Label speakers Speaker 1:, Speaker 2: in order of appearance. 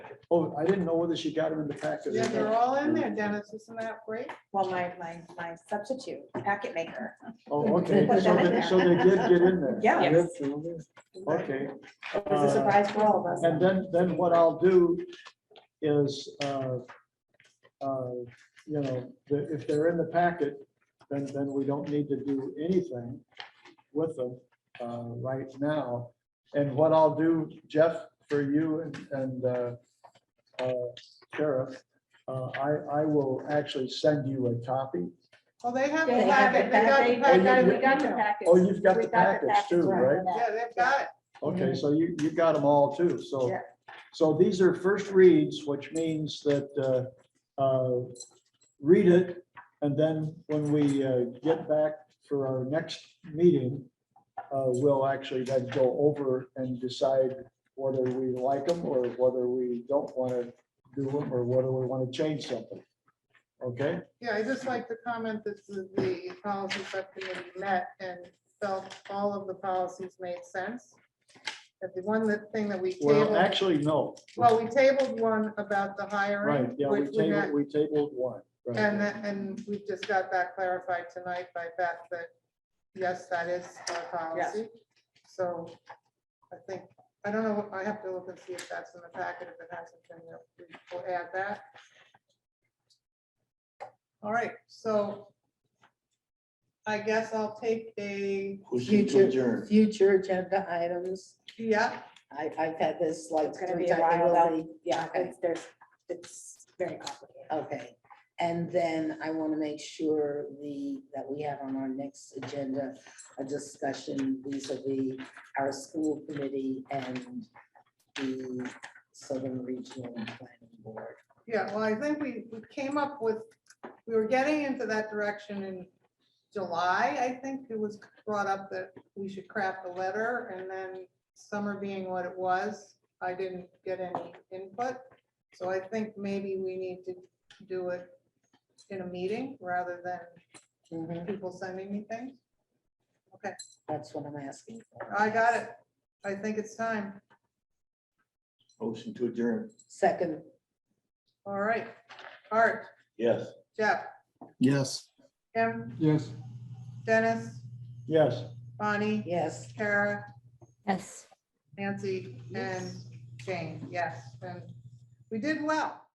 Speaker 1: Oh, I didn't know whether she got them in the packet.
Speaker 2: Yeah, they're all in there, Dennis, isn't that great?
Speaker 3: Well, my, my, my substitute, packet maker.
Speaker 1: Oh, okay,
Speaker 3: Put
Speaker 1: so
Speaker 3: them in
Speaker 1: they, so they did get in there.
Speaker 3: Yeah.
Speaker 1: They did, Okay.
Speaker 3: It was a
Speaker 1: Uh,
Speaker 3: surprise for all of us.
Speaker 1: And then, then what I'll do is, uh, uh, you know, the- if they're in the packet, then, then we don't need to do anything with them uh, right now. And what I'll do, Jeff, for you and- and uh, uh, Sheriff, uh, I, I will actually send you a copy.
Speaker 2: Well, they have the
Speaker 4: They have
Speaker 2: packet, they got
Speaker 4: the
Speaker 2: the
Speaker 4: packet.
Speaker 1: Oh, you-
Speaker 2: packet.
Speaker 1: you-
Speaker 4: We got the package.
Speaker 1: Oh, you've got
Speaker 4: We
Speaker 1: the package too, right? Mm-hmm.
Speaker 2: Yeah, they've got it.
Speaker 1: Okay, so you, you got them all too, so,
Speaker 3: Yeah.
Speaker 1: so these are first reads, which means that, uh, uh, read it, and then when we, uh, get back for our next meeting, uh, we'll actually then go over and decide whether we like them or whether we don't want to do them, or whether we want to change something. Okay,
Speaker 2: Yeah, I just like to comment that the the policy subcommittee met and felt all of the policies made sense. But the one that thing that we
Speaker 1: well,
Speaker 2: tabled,
Speaker 1: actually, no.
Speaker 2: well, we tabled one about the hiring.
Speaker 1: Right, yeah, we
Speaker 2: which we got-
Speaker 1: tabled, we tabled one. right.
Speaker 2: And, that- and we just got that clarified tonight by Beth that, yes, that is our policy. So I think, I don't know, I have to look and see if that's in the packet, if it hasn't been, we- we'll add that. All right, so I guess I'll take a,
Speaker 5: Motion to
Speaker 4: Future,
Speaker 5: adjourn.
Speaker 4: future agenda items.
Speaker 2: yeah,
Speaker 4: I, I've had this like.
Speaker 3: It's gonna
Speaker 4: three
Speaker 3: be a
Speaker 4: times
Speaker 3: while,
Speaker 4: already. Yeah,
Speaker 3: Yeah,
Speaker 4: okay,
Speaker 3: it's, there's, it's very complicated.
Speaker 4: okay. And then I want to make sure the, that we have on our next agenda, a discussion vis-à-vis our school committee and the Southern Regional Planning Board.
Speaker 2: yeah, well, I think we, we came up with, we were getting into that direction in July, I think it was brought up that we should craft a letter, and then summer being what it was, I didn't get any input. So I think maybe we need to do it in a meeting rather than
Speaker 3: Mm-hmm.
Speaker 4: Mhm,
Speaker 2: people sending me things.
Speaker 4: That's what I'm asking. for.
Speaker 2: I got it. I think it's time.
Speaker 5: Motion to adjourn.
Speaker 4: Second,
Speaker 2: All right. Art,
Speaker 5: Yes.
Speaker 2: Jeff,
Speaker 6: Yes.
Speaker 2: Kim,
Speaker 1: Yes.
Speaker 2: Dennis,
Speaker 1: Yes.
Speaker 2: Bonnie,
Speaker 4: yes.
Speaker 2: Kara,
Speaker 7: Yes.
Speaker 2: Nancy, and Jane. Yes, and we did well.